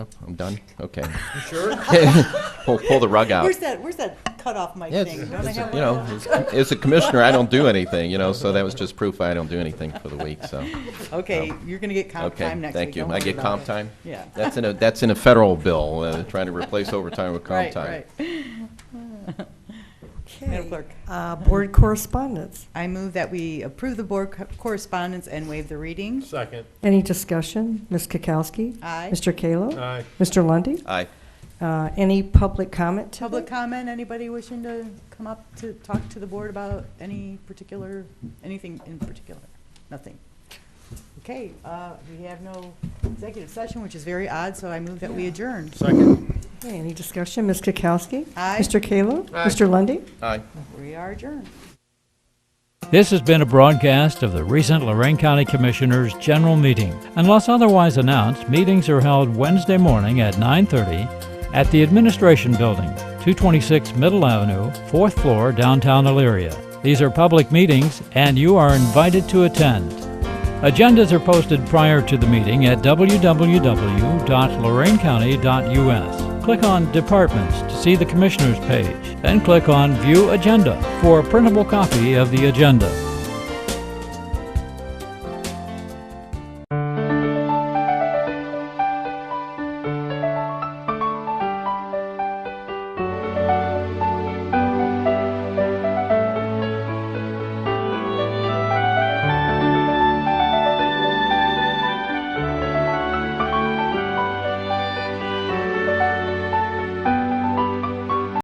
Oh, I'm done? Okay. Sure. Pull, pull the rug out. Where's that, where's that cutoff mic Yeah, it's, thing? Don't I it's a- have you one? know, as com- as a commissioner, I don't do anything, you know, so that was just proof I don't do anything for the week, so. Okay, you're gonna get comp Okay, time next week. thank you. Don't I worry get about comp it. time? Yeah. That's in a, that's in a federal bill, uh, trying to replace overtime with comp Right, time. right. Madam Okay, Clerk. uh, Board correspondence. I move that we approve the board co- correspondence and waive the reading. Second. Any discussion? Ms. Kukowski? Aye. Mr. Kallo? Aye. Mr. Lundy. Aye. Uh, Any public comment? to Public the- comment, anybody wishing to come up to talk to the board about any particular, anything in particular? Nothing. Okay, uh, we have no executive session, which is very odd, so I move that we adjourn. Second. Okay, Any discussion? Ms. Kukowski? Aye. Mr. Kallo? Mr. Lundy. Aye. We are adjourned. This has been a broadcast of the recent Lorraine County Commissioners' General Meeting. Unless otherwise announced, meetings are held Wednesday morning at 9:30 at the Administration Building, 226 Middle Avenue, 4th floor, downtown Elyria. These are public meetings and you are invited to attend. Agendas are posted prior to the meeting at www.lorainecounty.us. Click on Departments to see the Commissioners page, then click on View Agenda for a printable copy of the agenda.